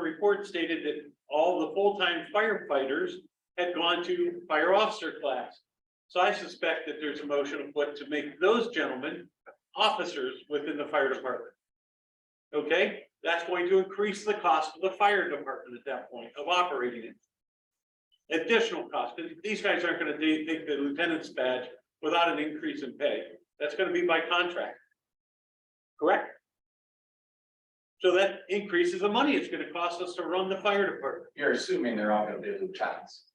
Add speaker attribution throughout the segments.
Speaker 1: report stated that all the full-time firefighters had gone to fire officer class. So I suspect that there's a motion of what to make those gentlemen officers within the fire department. Okay, that's going to increase the cost of the fire department at that point of operating it additional cost, 'cause these guys aren't gonna ta- take the lieutenant's badge without an increase in pay, that's gonna be by contract. Correct? So that increases the money it's gonna cost us to run the fire department.
Speaker 2: You're assuming they're all gonna be lieutenants.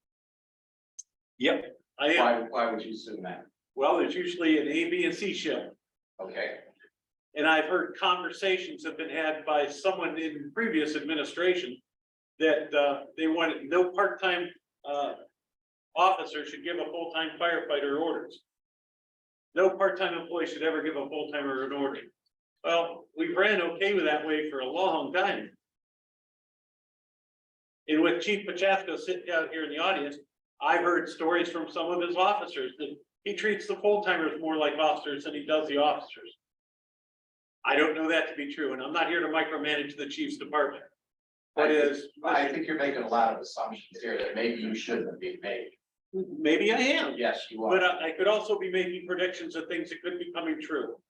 Speaker 1: Yep. I am,
Speaker 2: Why, why would you assume that?
Speaker 1: well, there's usually an A, B, and C shift,
Speaker 2: Okay,
Speaker 1: and I've heard conversations have been had by someone in previous administration that, uh, they wanted, no part-time, uh, officer should give a full-time firefighter orders. No part-time employee should ever give a full-timer an order. Well, we ran okay with that way for a long time. And with Chief Pachaska sitting down here in the audience, I've heard stories from some of his officers that he treats the full-timers more like officers than he does the officers. I don't know that to be true, and I'm not here to micromanage the chief's department. What is?
Speaker 2: I think you're making a lot of assumptions here that maybe you shouldn't have been made.
Speaker 1: Maybe I am,
Speaker 2: Yes, you
Speaker 1: But uh,
Speaker 2: are.
Speaker 1: I, I could also be making predictions of things that could be coming true.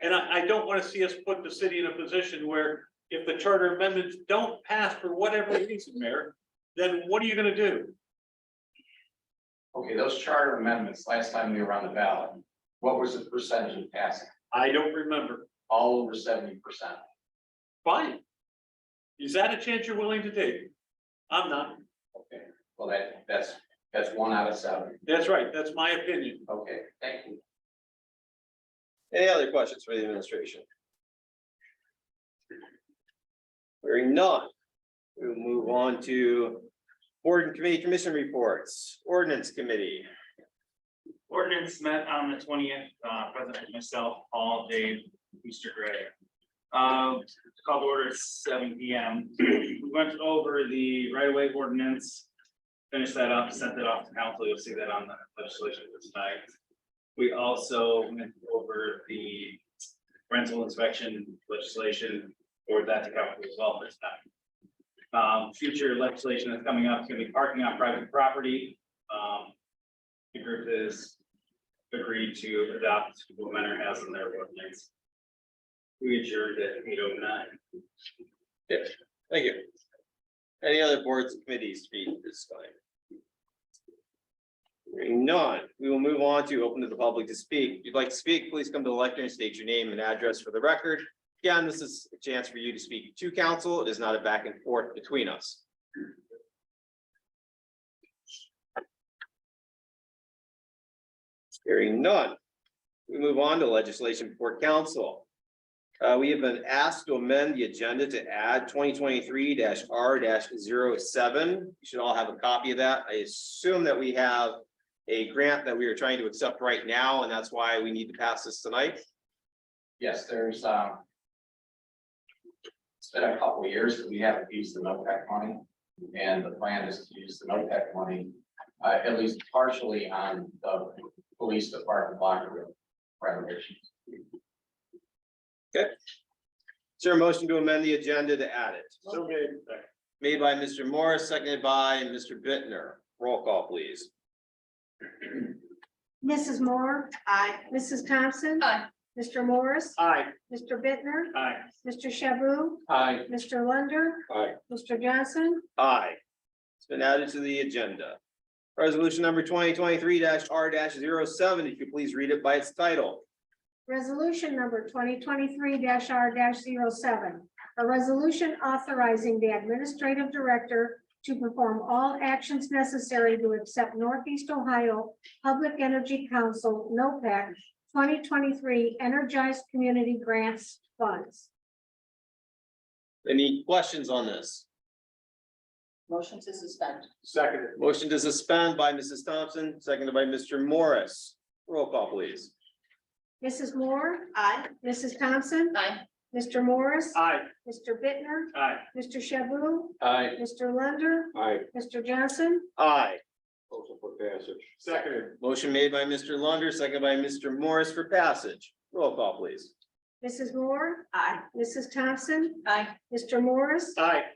Speaker 1: And I, I don't wanna see us put the city in a position where if the charter amendments don't pass for whatever reason, Mayor, then what are you gonna do?
Speaker 2: Okay, those charter amendments, last time we were on the ballot, what was the percentage of passing?
Speaker 1: I don't remember.
Speaker 2: All over seventy percent.
Speaker 1: Fine. Is that a chance you're willing to take? I'm not.
Speaker 2: Okay, well, that, that's, that's one out of seven.
Speaker 1: That's right. That's my opinion.
Speaker 2: Okay, thank you.
Speaker 3: Any other questions for the administration? Hearing none. We'll move on to board and committee commission reports, ordinance committee.
Speaker 4: Ordinance met on the twentieth, uh, President, myself, all Dave, Mr. Gray. Uh, called order at seven P M. We went over the right of way ordinance. Finished that up, sent that off to council. You'll see that on the legislation for tonight. We also went over the rental inspection legislation or that to council as well this time. Um, future legislation that's coming up is gonna be parking on private property. Um, the group is agreed to adopt what Mentor has in their ordinance. We adjourned at eight oh nine.
Speaker 3: Thank you. Any other boards and committees to be discussed? Hearing none, we will move on to open to the public to speak. If you'd like to speak, please come to the lectern, state your name and address for the record. Again, this is a chance for you to speak to council. It is not a back and forth between us. Hearing none, we move on to legislation before council. Uh, we have been asked to amend the agenda to add twenty twenty-three R 7 You should all have a copy of that. I assume that we have a grant that we are trying to accept right now, and that's why we need to pass this tonight.
Speaker 2: Yes, there's, um. It's been a couple of years that we haven't used the NOPEC money, and the plan is to use the NOPEC money, uh, at least partially on the police department locker room renovation.
Speaker 3: Is there a motion to amend the agenda to add it?
Speaker 1: So maybe.
Speaker 3: Made by Mr. Morris, seconded by Mr. Bittner. Roll call, please.
Speaker 5: Mrs. Moore. Aye. Mrs. Thompson. Aye. Mr. Morris.
Speaker 1: Aye.
Speaker 5: Mr. Bittner.
Speaker 1: Aye.
Speaker 5: Mr. Shaboo.
Speaker 2: Hi,
Speaker 5: Mr. Lunder.
Speaker 3: Aye.
Speaker 5: Mr. Johnson.
Speaker 3: Aye. It's been added to the agenda. Resolution number twenty twenty-three R 7 if you please read it by its title.
Speaker 5: Resolution number twenty twenty-three R 7 A resolution authorizing the administrative director to perform all actions necessary to accept Northeast Ohio Public Energy Council, NOPEC, twenty twenty-three Energized Community Grants Funds.
Speaker 3: Any questions on this?
Speaker 6: Motion to suspend.
Speaker 1: Second.
Speaker 3: Motion to suspend by Mrs. Thompson, seconded by Mr. Morris. Roll call, please.
Speaker 5: Mrs. Moore.
Speaker 6: Aye.
Speaker 5: Mrs. Thompson.
Speaker 6: Aye.
Speaker 5: Mr. Morris.
Speaker 1: Aye.
Speaker 5: Mr. Bittner,
Speaker 1: Aye.
Speaker 5: Mr. Shaboo,
Speaker 2: Hi.
Speaker 5: Mr. Lunder,
Speaker 7: Aye,
Speaker 5: Mr. Johnson,
Speaker 3: Aye.
Speaker 7: motion for passage.
Speaker 1: Second.
Speaker 3: Motion made by Mr. Lunder, seconded by Mr. Morris for passage. Roll call, please.
Speaker 5: Mrs. Moore,
Speaker 6: Aye.
Speaker 5: Mrs. Thompson,
Speaker 6: Aye.
Speaker 5: Mr. Morris,
Speaker 1: Aye.